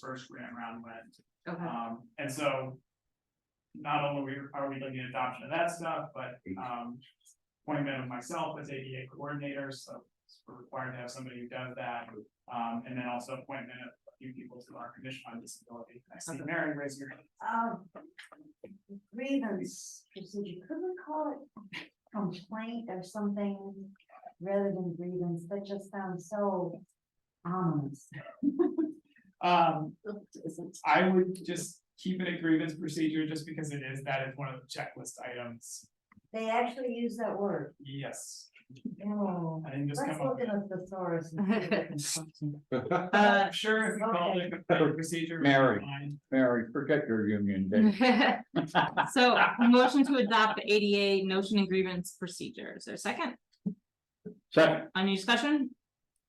first grant round went. Okay, Um, and so. Not only are we looking at adoption of that stuff, but, um, appointment of myself as ADA coordinator, so. We're required to have somebody who does that, um, and then also appointment of a few people to our commission on disability. I see Mary raise your hand. Um, grievance procedure, could we call it complaint or something rather than grievance, that just sounds so ominous. Um, I would just keep it a grievance procedure, just because it is, that is one of the checklist items. They actually use that word, Yes, no, I didn't just let's come up look with. at a thesaurus. and see what it's something. Uh, sure, if you call it a complaint procedure. it's Mary. fine. Mary, forget your union day. Mm-hmm. So motion to adopt the ADA notion and grievance procedures. Or second, Second, any discussion?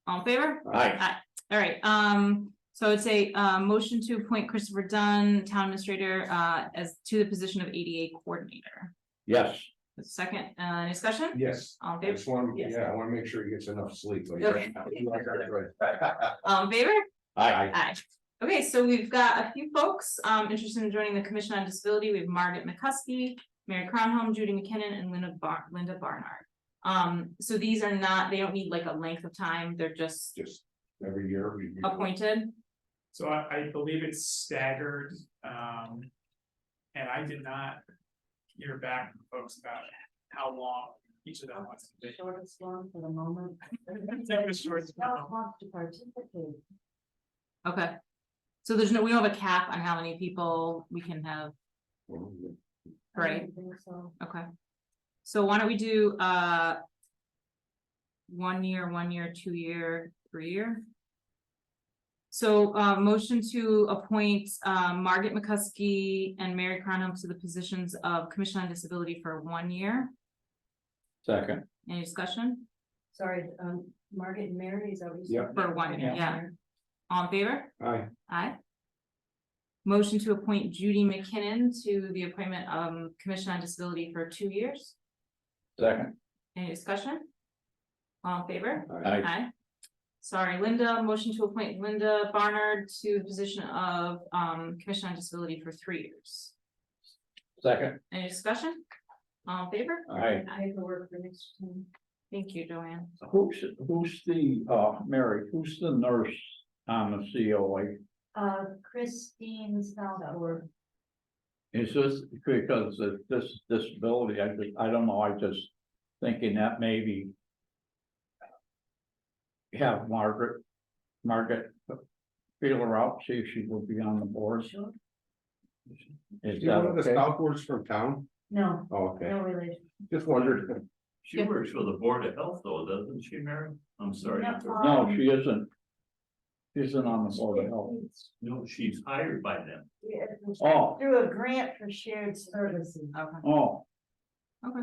All in favor? aye, All right, um, so I'd say, uh, motion to appoint Christopher Dunn, town administrator, uh, as to the position of ADA coordinator. yes, Second, uh, any discussion? Yes, All in I favor? just want, Yes. yeah, I wanna make sure he gets enough sleep. like, Okay. right now. All in favor? aye, Aye. Okay, so we've got a few folks um interested in joining the Commission on Disability. We have Margaret McCusky, Mary Cronholm, Judy McKinnon, and Linda Bar- Linda Barnard. Um, so these are not, they don't need like a length of time. They're just Just every year we. we- appointed. So I, I believe it's staggered, um, and I did not hear back from folks about how long each of them wants to be. Shortest one for the moment. That was short. Not want to participate. Okay. So there's no, we don't have a cap on how many people we can have, I don't Right. think So, okay? So why don't we do uh one year, one year, two year, three year? So uh motion to appoint uh Margaret McCusky and Mary Cronum to the positions of Commission on Disability for one year. second, Any discussion? sorry, um, Margaret and Mary is always. Yeah. For one year, yeah. All in favor? Aye, Aye. Motion to appoint Judy McKinnon to the appointment um Commission on Disability for two years. second, Any discussion? All in favor? aye, aye, Aye. Sorry, Linda, motion to appoint Linda Barnard to the position of um Commission on Disability for three years. second, Any discussion? All in favor? aye. Paperwork for next time. Thank you, Joanne. Who's, who's the, uh, Mary, who's the nurse on the COA? Uh, Christine Stalbor, Is this because of this disability, I just, I don't know, I just thinking that maybe. Have Margaret, Margaret, feel her out, see if she will be on the board. Sure. Is you that one of the okay? Stoutboards from town? no, Oh, okay, no relation. just wondered. She works for the Board of Health though, doesn't she, Mary? I'm sorry. No, No, um, she isn't. She isn't on the board of health. No, she's hired by them. Yeah, it was Oh. Through a grant for shared services. Okay. Oh. Okay.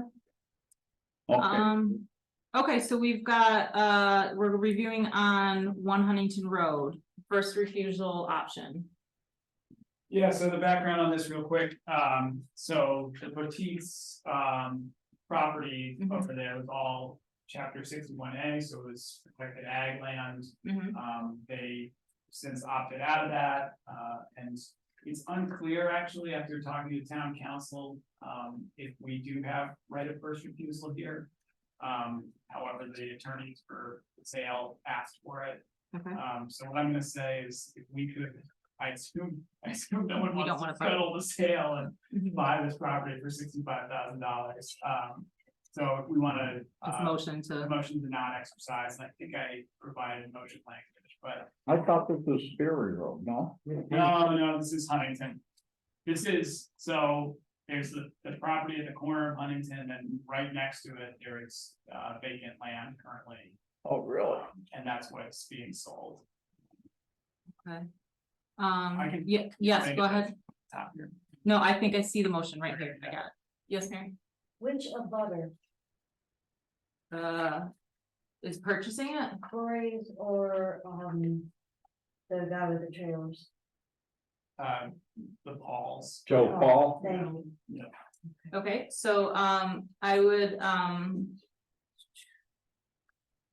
Okay, Um, okay, so we've got uh, we're reviewing on One Huntington Road, first refusal option. Yeah, so the background on this real quick, um, so the boutiques, um, property Mhm. over there was all chapter sixty-one A, so it was protected ag land. Mhm. Um, they since opted out of that, uh, and it's unclear actually after talking to town council, um, if we do have right of first refusal here. Um, however, the attorneys for sale asked for it. Okay. Um, so what I'm gonna say is if we could, I assume, I assume no one We don't wants to wanna fight. settle the sale and Mhm. buy this property for sixty-five thousand dollars. Um, so we wanna. It's uh, motion the to, motion to not exercise, and I think I provided motion language, but I thought this was Sperry Road, no? no, no, this is Huntington. This is, so there's the, the property at the corner of Huntington and right next to it, there is uh vacant land currently. Oh, really? And that's what's being sold. I um, can yeah, yes, make go it. ahead. Top here. No, I think I see the motion right here. I got it. Yes, Mary? Which of butter, Uh, is purchasing it? Corey's or, um, the guy with the trailers? Uh, the Pauls. Joe Oh, Paul? Thank you. Okay, so um I would um.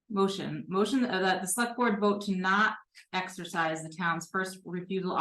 Motion, motion that the select board vote to not exercise the town's first refusal